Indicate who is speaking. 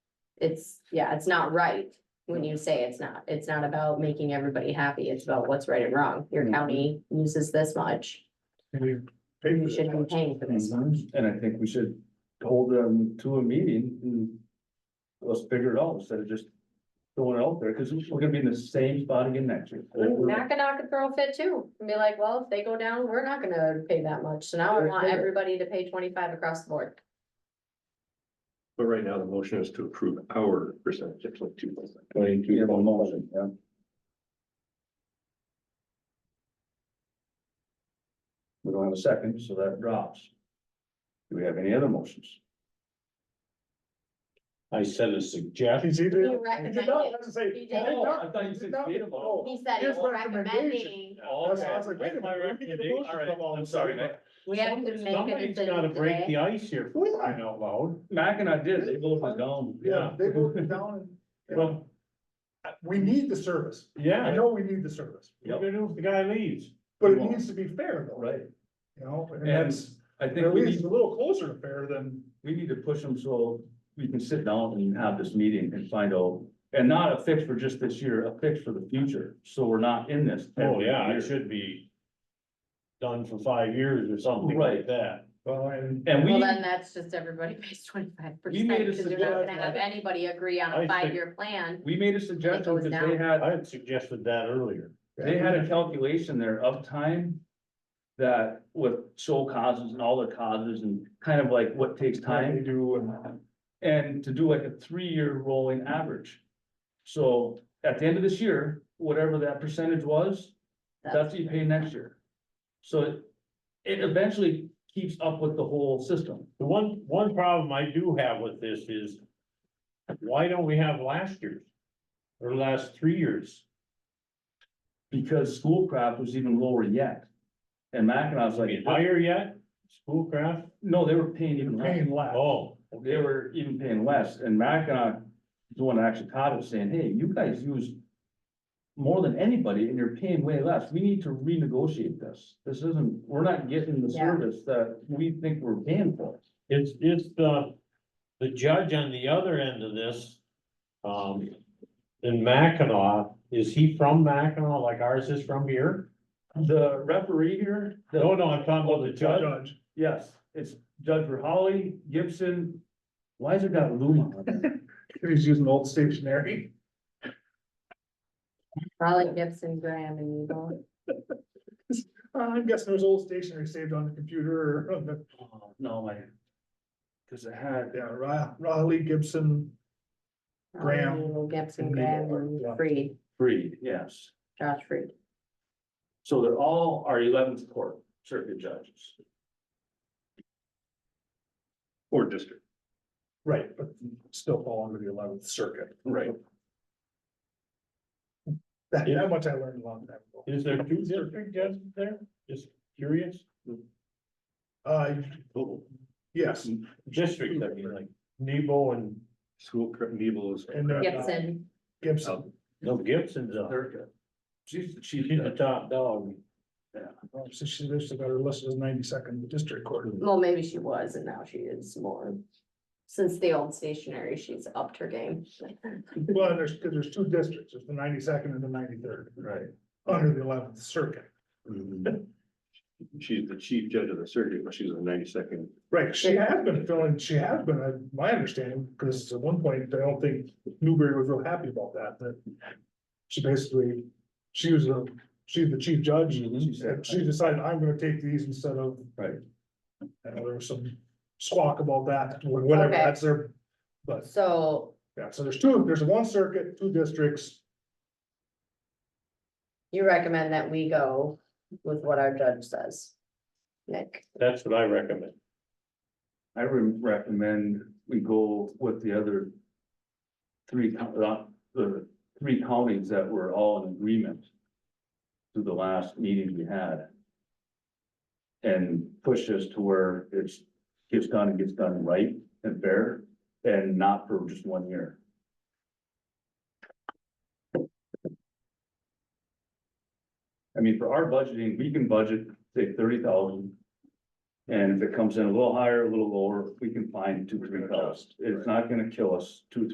Speaker 1: it's, yeah, it's not right when you say it's not. It's not about making everybody happy. It's about what's right and wrong. Your
Speaker 2: Mhm.
Speaker 1: county uses this much.
Speaker 2: And we pay for
Speaker 1: You
Speaker 2: this
Speaker 1: should be
Speaker 2: much.
Speaker 1: paying for this.
Speaker 2: And I think we should hold them to a meeting and let's figure it out instead of just throwing it out there, because we're gonna be in the same spot again next year.
Speaker 1: Mackinac could throw a fit too and be like, well, if they go down, we're not gonna pay that much. So now I want everybody to pay twenty-five across the board.
Speaker 3: But right now, the motion is to approve our percentage, it's like two percent.
Speaker 2: We have a motion, yeah. We don't have a second, so that drops. Do we have any other motions?
Speaker 4: I said a suggestion.
Speaker 2: He's either.
Speaker 1: You recommend it. You did.
Speaker 2: No, I thought you said
Speaker 3: No.
Speaker 2: favorable.
Speaker 1: He said
Speaker 2: Here's
Speaker 1: he's recommending,
Speaker 2: recommendation.
Speaker 4: All
Speaker 2: That's why I was like, wait a
Speaker 4: right, my
Speaker 2: minute, let me get the
Speaker 4: recommendation-
Speaker 2: motion
Speaker 4: all right,
Speaker 2: from all
Speaker 4: I'm
Speaker 2: this
Speaker 4: sorry,
Speaker 2: stuff.
Speaker 4: Mac.
Speaker 1: we have to make a
Speaker 4: Somebody's gotta
Speaker 1: decision
Speaker 4: break the
Speaker 1: today.
Speaker 4: ice here, for crying out loud.
Speaker 2: Mac and I did, they both went down.
Speaker 5: Yeah, they broke it down and, you know,
Speaker 4: Well,
Speaker 5: we need the service. I
Speaker 4: yeah,
Speaker 5: know we need the service,
Speaker 4: what do you do if the guy leaves?
Speaker 5: but it needs to be fair though,
Speaker 2: Right,
Speaker 5: you know, and
Speaker 2: and
Speaker 5: that's,
Speaker 2: I think
Speaker 5: at
Speaker 2: we
Speaker 5: least
Speaker 2: need,
Speaker 5: it's a little closer to fair than,
Speaker 2: we need to push them so we can sit down and have this meeting and find out. And not a fix for just this year, a fix for the future, so we're not in this.
Speaker 4: Oh, yeah,
Speaker 2: every
Speaker 4: it
Speaker 2: year.
Speaker 4: should be done for five years or something like
Speaker 2: Right.
Speaker 4: that.
Speaker 5: well, and.
Speaker 2: And
Speaker 1: Well,
Speaker 2: we,
Speaker 1: then that's just everybody pays twenty-five
Speaker 2: You made
Speaker 1: percent
Speaker 2: a
Speaker 1: because you're not gonna
Speaker 2: suggestion.
Speaker 1: have anybody agree on
Speaker 4: I
Speaker 1: a
Speaker 4: think-
Speaker 1: five-year plan.
Speaker 2: we made a suggestion
Speaker 1: goes
Speaker 2: because
Speaker 1: down.
Speaker 2: they had,
Speaker 4: I had suggested that earlier.
Speaker 2: they had a calculation there of time. That with sole causes and all the causes and kind of like what takes time.
Speaker 5: They do and.
Speaker 2: And to do like a three-year rolling average. So at the end of this year, whatever that percentage was, that's what you pay next year. So it, it eventually keeps up with the whole system.
Speaker 4: The one, one problem I do have with this is, why don't we have last year's? Or last three years?
Speaker 2: Because Schoolcraft was even lower yet. And Mackinac was
Speaker 4: I
Speaker 2: like,
Speaker 4: mean, higher yet, schoolcraft?
Speaker 2: no, they were paying even less.
Speaker 5: Paying less.
Speaker 4: Oh,
Speaker 2: They were even paying less. And Mackinac, the one that actually caught it saying, hey, you guys use more than anybody and you're paying way less. We need to renegotiate this. This isn't, we're not getting the
Speaker 1: Yeah.
Speaker 2: service that we think we're paying for.
Speaker 4: It's, it's the, the judge on the other end of this, um, in Mackinac, is he from Mackinac like ours is from here?
Speaker 2: The referee here,
Speaker 4: No,
Speaker 2: the,
Speaker 4: no, I'm talking about the judge.
Speaker 5: Judge,
Speaker 2: yes, it's Judge Rahali, Gibson. Why is it got Luma on there?
Speaker 5: he's using old stationery.
Speaker 1: Probably Gibson, Graham and Eagle.
Speaker 5: Uh, I'm guessing there's old stationery saved on the computer or, on the-
Speaker 2: Oh, No, I. Cause it had,
Speaker 5: yeah, Ra- Raleigh Gibson. Graham.
Speaker 1: Eagle, Gibson,
Speaker 5: And
Speaker 1: Graham
Speaker 5: Eagle,
Speaker 1: and
Speaker 5: yeah.
Speaker 1: Freed,
Speaker 2: Freed, yes.
Speaker 1: Josh Freed.
Speaker 2: So they're all our eleventh court circuit judges.
Speaker 3: Or district.
Speaker 5: Right, but still fall under the eleventh circuit.
Speaker 2: Right.
Speaker 5: That,
Speaker 4: Yeah.
Speaker 5: that much I learned a long time ago.
Speaker 4: Is there two district judges there? Just curious.
Speaker 5: Uh,
Speaker 3: Total.
Speaker 5: yes,
Speaker 4: District, I mean, like Nebo and,
Speaker 3: School, correct, Neville is.
Speaker 5: And, uh,
Speaker 1: Gibson,
Speaker 5: Gibson.
Speaker 4: no, Gibson's up.
Speaker 2: Third. She's the chief.
Speaker 4: She's the top dog.
Speaker 5: Oh, So she listed, got her listed as ninety second district court.
Speaker 1: well, maybe she was and now she is more. Since the old stationary, she's upped her game.
Speaker 5: Well, and there's, 'cause there's two districts, there's the ninety second and the ninety third,
Speaker 2: Right.
Speaker 5: under the eleventh circuit.
Speaker 3: Mm-hmm. She's the chief judge of the circuit, but she's the ninety-second.
Speaker 5: Right, she has been filling, she has been, uh, my understanding, because at one point, I don't think Newberry was real happy about that, that. She basically, she was a, she's the chief judge,
Speaker 2: Mhm.
Speaker 5: she said, she decided, I'm gonna take these instead of.
Speaker 2: Right.
Speaker 5: I know there was some squawk about that, whatever,
Speaker 1: Okay.
Speaker 5: that's their, but,
Speaker 1: So
Speaker 5: yeah, so there's two, there's one circuit, two districts.
Speaker 1: you recommend that we go with what our judge says? Nick,
Speaker 4: That's what I recommend.
Speaker 2: I would recommend we go with the other. Three, co- uh, the three counties that were all in agreement. To the last meeting we had. And push us to where it's, gets done and gets done right and fair, and not for just one year. I mean, for our budgeting, we can budget, say thirty thousand. And if it comes in a little higher, a little lower, we can find two, three thousand. It's not gonna kill us, two,